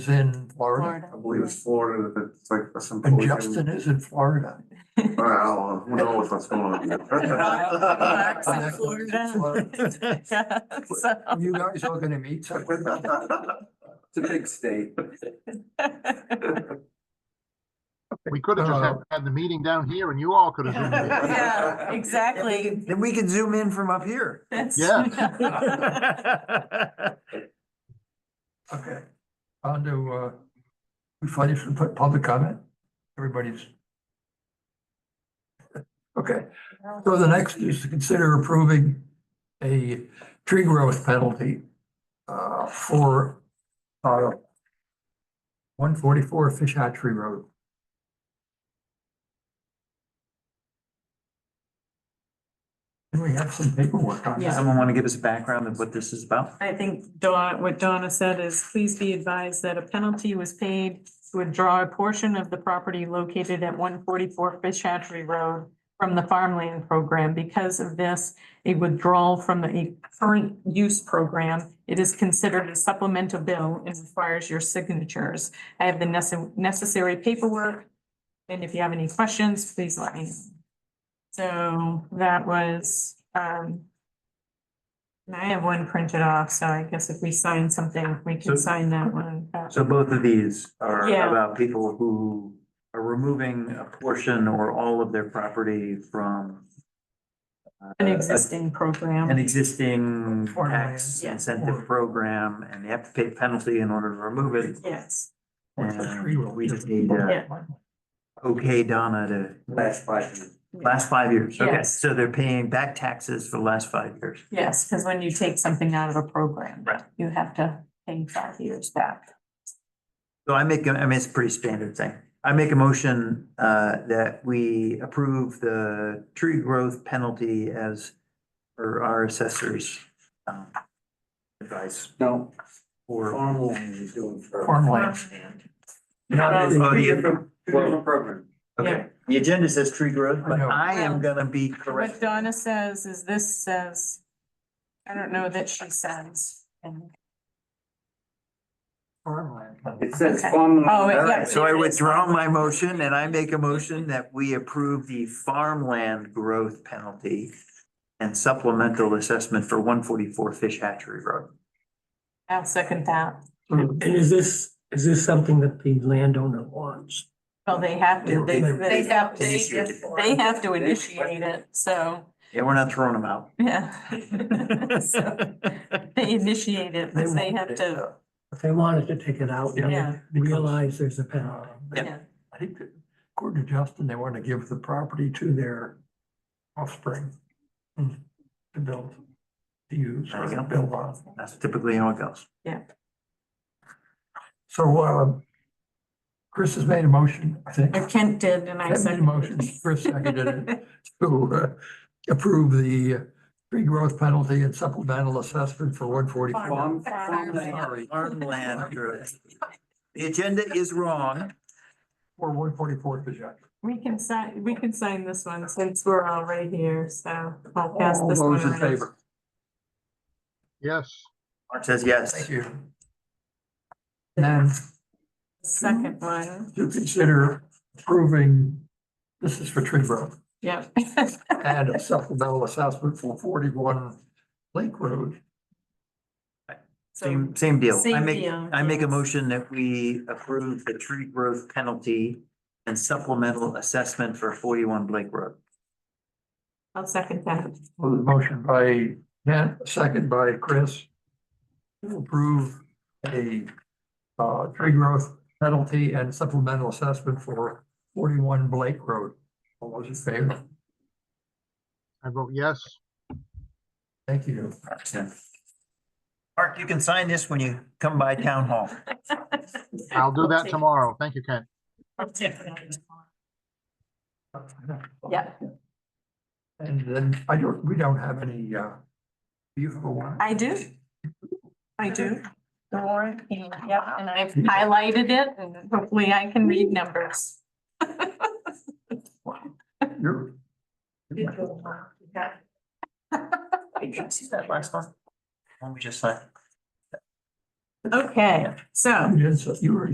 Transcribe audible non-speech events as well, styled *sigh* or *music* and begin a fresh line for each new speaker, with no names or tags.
is in Florida
Florida.
I believe it's Florida, that it's like some.
and Justin is in Florida.
Well, who knows what's going
Relax in
on?
Florida. *laughs* Yeah, so-
Uh, *laughs* You guys are gonna meet sometime.
*laughs* It's a big state.
We could have just had,
Uh,
had the meeting down here and you all could have zoomed in.
Yeah, exactly.
Then we can zoom in from up here.
That's-
Okay, on to, uh, we finished with pu- public comment? Everybody's. Okay, so the next is to consider approving a tree growth penalty, uh, for, uh, one forty-four Fish Hatchery Road. And we have some paperwork on
*laughs* Yeah.
*laughs*
that.
Someone want to give us a background of what this is about?
I think Dawn, what Donna said is, please be advised that a penalty was paid to withdraw a portion of the property located at one forty-four Fish Hatchery Road from the farmland program. Because of this, a withdrawal from the current use program, it is considered a supplemental bill and requires your signatures. I have the nece- necessary paperwork, and if you have any questions, please let me. know. So that was, um, and I have one printed off, so I guess if we sign something, we
So-
can sign that one. but-
So both of these are
Yeah.
about people who are removing a portion or all of their property from uh,
An existing
An
program.
existing
Or
tax
land.
incentive program, and they have to pay a penalty in order to remove it.
Yes,
And we just need, uh,
Yeah.
okay, Donna, to
Last five years.
last five years. Okay,
Yes.
so they're paying back taxes for the last five years.
yes, because when you take something out of a program,
Right.
you have to pay five years back.
So I make, a- I mean, it's a pretty standard thing. I make a motion uh that we approve the tree growth penalty as for our assessors. um, Advice
No,
or.
farmland is doing. for-
Farmland.
Not- oh,
Two
the-
different- two different programs.
Okay, the agenda says tree growth, but
I know.
I am
Well,
gonna be
What
correct.
Donna says is this says, I don't know that she says. and-
Farmland.
It says
Okay.
farmland.
Oh, it- yeah.
So I withdraw my motion and I make a motion that we approve the farmland growth penalty and supplemental assessment for one forty-four Fish Hatchery Road.
I'll second that.
And is this, is this something that the landowner wants?
Well, they have to, they,
They-
they have, they,
Initiate it.
they have to initiate it, so,
Yeah, we're not throwing them out.
yeah. *laughs* So, They initiate it,
They
because they
wanted
have
it,
to,
uh,
If they wanted to take it out and
Yeah.
then realize there's a penalty.
Yeah.
yeah,
I think that according to Justin, they want to give the property to their offspring to build, to use,
There
or
you
to
go.
build on.
That's typically how it goes.
So, uh, Chris has made a motion, I think.
Or Kent did, and I
Ken made a
said.
motion, Chris seconded
*laughs*
it, to uh, approve the tree growth penalty and supplemental assessment for one forty-four.
Farm- farmland.
Sorry,
Farmland growth. The agenda is wrong.
for one forty-four Pajak.
We can sign, we can sign this one since we're all right here, so I'll pass
All
this one.
those in
around.
favor?
Yes,
Mark says
Thank
yes.
you. And
Second one,
to consider approving, this is for tree growth.
yeah. *laughs*
and a supplemental assessment for forty-one Lake Road.
So,
Same, same deal. I
Same
make,
deal,
I make a
yes.
motion that we approve the tree growth penalty and supplemental assessment for forty-one Blake Road.
I'll second that.
Well, the Motion by Kent, second by Chris. To approve a uh tree growth penalty and supplemental assessment for forty-one Blake Road. All those in favor?
I vote yes.
Thank you.
Mark, you can sign this when you come by town hall.
I'll do that
take-
tomorrow. Thank you, Ken.
I'll take that. Yeah.
And then I don't, we don't have any uh. Do you have a warrant?
I do. I do. The warrant, yeah, and I've highlighted it and hopefully I can *laughs* read numbers.
You're.
Did you see that last one? When we just signed?
Okay, so.
You did, so you were